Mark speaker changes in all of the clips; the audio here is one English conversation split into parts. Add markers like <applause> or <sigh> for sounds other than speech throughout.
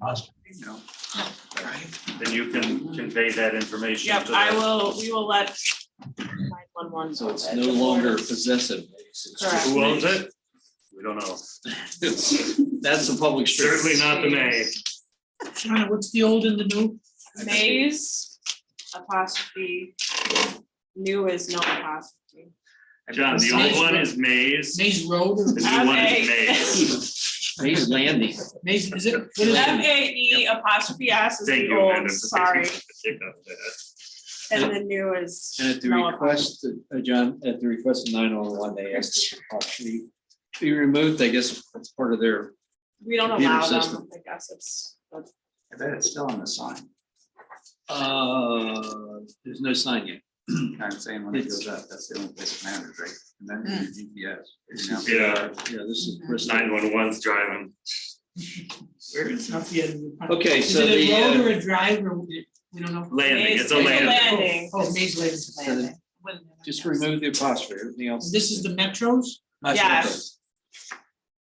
Speaker 1: positive.
Speaker 2: you know.
Speaker 3: Then you can convey that information
Speaker 4: Yep,
Speaker 3: to
Speaker 4: I
Speaker 3: the-
Speaker 4: will, we will let nine one one.
Speaker 5: So it's no longer possessive. It's just
Speaker 4: Correct.
Speaker 3: Who owns
Speaker 5: made.
Speaker 3: it? We don't know.
Speaker 5: It's- That's the public street.
Speaker 3: Certainly not the May.
Speaker 1: Shauna, what's the old and the new?
Speaker 4: Maze apostrophe, new is no apostrophe.
Speaker 3: John, the old one is Maze,
Speaker 1: Maze Road or
Speaker 3: the new one is
Speaker 4: Okay. <laughs>
Speaker 3: Maze.
Speaker 5: Maze Landing.
Speaker 1: Maze, is it? what is
Speaker 4: M
Speaker 1: it?
Speaker 4: A E apostrophe S is
Speaker 3: Thank
Speaker 4: the
Speaker 3: you, Amanda.
Speaker 4: old,
Speaker 3: for
Speaker 4: sorry,
Speaker 3: taking the pick up that.
Speaker 4: and the new is.
Speaker 5: And at the
Speaker 4: no
Speaker 5: request, of- uh, John, at the request of nine one one, they asked if the property be removed. I guess that's part of their,
Speaker 4: apostrophe. We don't
Speaker 5: computer
Speaker 4: allow them,
Speaker 5: system.
Speaker 4: I guess it's, that's-
Speaker 2: I bet it's still on the sign, <clears throat>
Speaker 5: uh, there's no sign yet.
Speaker 2: I'm saying when it
Speaker 5: It's-
Speaker 2: goes up, that's the only place it matters, right? And then your GPS. you know.
Speaker 3: Yeah,
Speaker 5: Yeah, this is.
Speaker 3: nine one one's driving.
Speaker 1: Where is not the end of
Speaker 3: oh
Speaker 1: the-
Speaker 5: Okay,
Speaker 1: Is
Speaker 5: so
Speaker 1: it
Speaker 5: the,
Speaker 1: a road
Speaker 5: uh,
Speaker 1: or a drive or we we don't know?
Speaker 3: Landing, it's a
Speaker 4: Maze-
Speaker 3: landing.
Speaker 4: landing.
Speaker 1: Oh, Maze Lane's
Speaker 5: So the-
Speaker 1: landing.
Speaker 5: just remove the apostrophe, everything else.
Speaker 1: This is the Metros,
Speaker 4: Yes.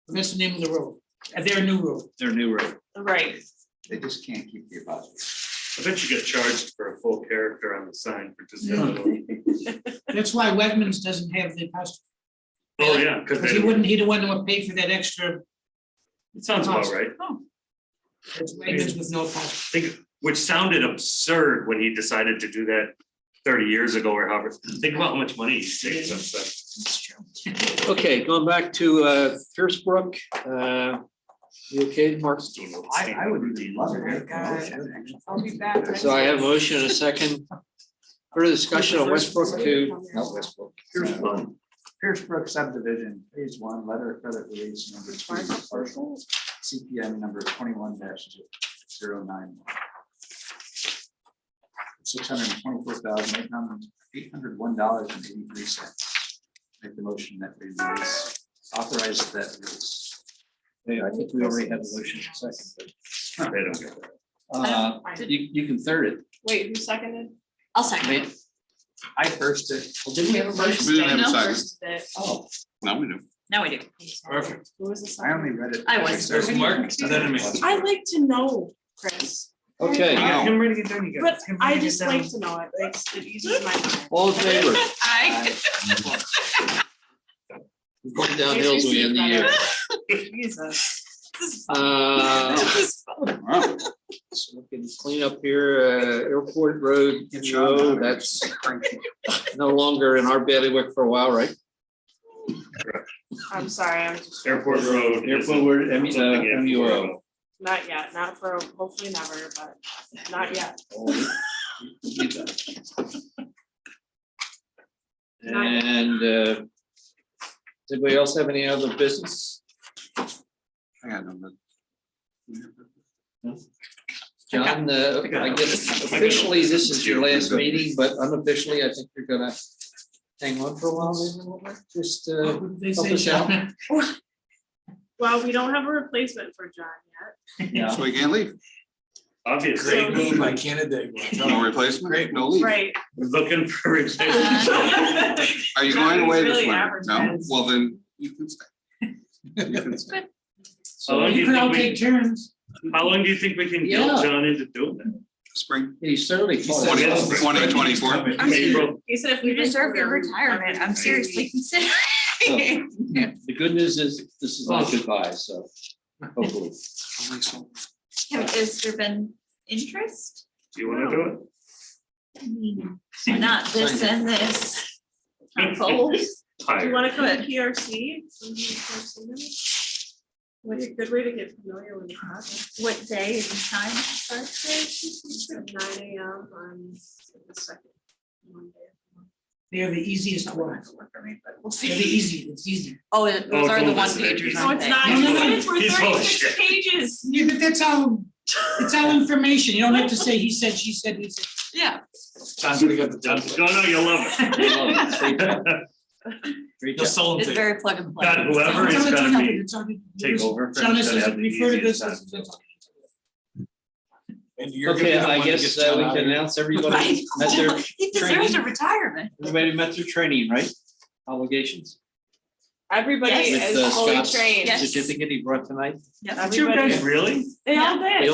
Speaker 1: that's the name of the road, Uh, their new road.
Speaker 5: Their new road.
Speaker 4: Right,
Speaker 2: They just can't keep the apostrophe.
Speaker 3: I bet you get charged for a full character on the sign for just. that little-
Speaker 1: That's why Wegmans doesn't have the apostrophe,
Speaker 3: Oh, yeah, because
Speaker 1: because he wouldn't, he don't want to pay for that extra,
Speaker 3: it sounds about right.
Speaker 1: that's Wegmans with no apostrophe.
Speaker 3: think, which sounded absurd when he decided to do that thirty years ago or however. Think about how much money he saved since then.
Speaker 5: Okay, going back to uh, Pierce Brook, uh, you okay, Mark?
Speaker 2: I, I would even love it.
Speaker 4: Oh my I'll be back. next
Speaker 5: So I have a
Speaker 4: week.
Speaker 5: motion and a second. Further discussion on Westbrook to, Oh, not Westbrook,
Speaker 2: Pierce Brook, Pierce Brook subdivision, phase one, letter of credit release number two, partial, CPM number twenty-one dash zero nine. Six hundred and twenty-four thousand, eight hundred, eight hundred one dollars and eighty-three cents. Make the motion that we release, authorize that release.
Speaker 5: yeah, I think we already had a motion and a second.
Speaker 3: They don't get that.
Speaker 5: but, uh, You, you can third it.
Speaker 4: Um, Wait, who seconded?
Speaker 6: I'll second.
Speaker 5: Ma-
Speaker 2: I first it,
Speaker 5: well, Didn't we have a motion?
Speaker 7: We didn't have a
Speaker 6: No.
Speaker 7: second.
Speaker 4: First did.
Speaker 5: Oh,
Speaker 7: Now we do.
Speaker 6: Now we do.
Speaker 5: Perfect.
Speaker 4: Who was the
Speaker 2: I
Speaker 4: second?
Speaker 2: only read it.
Speaker 6: I was.
Speaker 2: There's
Speaker 5: Mark,
Speaker 2: and then me.
Speaker 4: I like to know, Chris,
Speaker 5: okay,
Speaker 7: Wow.
Speaker 1: Him ready to get done, you
Speaker 4: but
Speaker 1: guys. Him ready
Speaker 4: I
Speaker 1: to get
Speaker 4: just
Speaker 1: done.
Speaker 4: like to know it, like, it eases my mind.
Speaker 5: all in favor,
Speaker 6: I.
Speaker 5: We're going downhill as we end the
Speaker 4: <laughs>
Speaker 5: year.
Speaker 4: Jesus. This is-
Speaker 5: Uh,
Speaker 7: Oh.
Speaker 4: this is fun.
Speaker 7: Wow.
Speaker 5: so we can Clean up here, uh, Airport Road, MO, that's no longer in our bailiwick for a while, right?
Speaker 4: I'm sorry, I'm just,
Speaker 3: Airport Road. is
Speaker 5: Airport Road, M-
Speaker 3: something
Speaker 5: uh,
Speaker 3: if
Speaker 5: MUO.
Speaker 4: not yet, not for, hopefully never, but not yet.
Speaker 5: And uh, does anybody else have any other business?
Speaker 2: I got number.
Speaker 5: John, uh, I guess officially this is your last meeting, but unofficially, I think you're gonna hang on for a while. maybe a little bit. Just, uh,
Speaker 1: What did They
Speaker 5: help
Speaker 1: say,
Speaker 5: us out.
Speaker 1: Shauna?
Speaker 4: Well, we don't have a replacement for John yet.
Speaker 5: yeah,
Speaker 7: So we can't leave.
Speaker 3: Obviously,
Speaker 4: So-
Speaker 3: we're <laughs>
Speaker 7: No replacement.
Speaker 2: Great.
Speaker 7: No leave.
Speaker 4: Right.
Speaker 3: looking for replacement.
Speaker 4: It's
Speaker 7: <laughs> Are you going away
Speaker 4: Really
Speaker 7: this winter? No.
Speaker 4: advertised.
Speaker 7: Well, then you can stay. You can stay.
Speaker 3: How long do
Speaker 1: You
Speaker 3: you
Speaker 1: could all
Speaker 3: think
Speaker 1: take
Speaker 3: we,
Speaker 1: turns.
Speaker 3: how long do you think we can
Speaker 5: Yeah.
Speaker 3: guilt John into doing that?
Speaker 7: Spring.
Speaker 5: he certainly. taught
Speaker 7: <laughs> Twenty,
Speaker 3: yes,
Speaker 5: us.
Speaker 3: spring.
Speaker 7: twenty twenty-four.
Speaker 6: I'm serious.
Speaker 3: April,
Speaker 4: He said if we
Speaker 6: You deserve your
Speaker 4: consider-
Speaker 6: retirement. I'm seriously <laughs> considering.
Speaker 5: The good news is, this is not goodbye, so hopefully.
Speaker 6: Has there been interest?
Speaker 3: Do you wanna do it?
Speaker 6: I mean, Not this and this. Oh, I'm cold.
Speaker 4: Do you
Speaker 3: <laughs> Tired.
Speaker 4: wanna come to PRC? Some PRC minutes? What's a good way to get familiar with the project?
Speaker 6: What day and time starts
Speaker 4: It's at Nine AM on the second Monday.
Speaker 1: They are the easiest one.
Speaker 6: We'll
Speaker 1: They're the
Speaker 6: see.
Speaker 1: easy, it's easy.
Speaker 6: Oh,
Speaker 3: Oh,
Speaker 6: those are the
Speaker 3: don't
Speaker 6: one
Speaker 3: listen to
Speaker 6: pagers,
Speaker 3: these.
Speaker 4: No,
Speaker 6: aren't
Speaker 4: it's
Speaker 6: they?
Speaker 4: not.
Speaker 1: No, no, no.
Speaker 4: It's for
Speaker 3: He's full of
Speaker 4: thirty-six
Speaker 3: shit.
Speaker 4: pages.
Speaker 1: Yeah, but that's all, it's all information. You don't have to say, he said, she said, he said.
Speaker 6: Yeah.
Speaker 5: John's gonna get the
Speaker 3: No, "Oh, no, you'll love it. <laughs>
Speaker 5: Great
Speaker 3: You'll
Speaker 5: job.
Speaker 3: sell
Speaker 6: It's very plug and play.
Speaker 3: God, whoever
Speaker 6: <laughs>
Speaker 1: It's
Speaker 3: is
Speaker 1: all- it's
Speaker 3: gonna
Speaker 1: all-
Speaker 3: be-
Speaker 1: it's all-
Speaker 3: Take over. for him,
Speaker 1: John, this
Speaker 3: gotta
Speaker 1: is,
Speaker 3: have the
Speaker 1: refer to
Speaker 3: easiest
Speaker 1: this
Speaker 3: time.
Speaker 1: as. that's all.
Speaker 5: Okay, I guess uh, we can announce
Speaker 6: <laughs> Right.
Speaker 5: everybody met their,
Speaker 6: He deserves a retirement.
Speaker 5: everybody met their training, right? Obligations.
Speaker 4: Everybody
Speaker 6: Yes.
Speaker 5: With, uh,
Speaker 4: is fully
Speaker 5: Scott's
Speaker 4: trained.
Speaker 6: Yes.
Speaker 5: Certificate he brought tonight.
Speaker 6: Yep.
Speaker 4: Everybody,
Speaker 3: Really?
Speaker 4: they all did.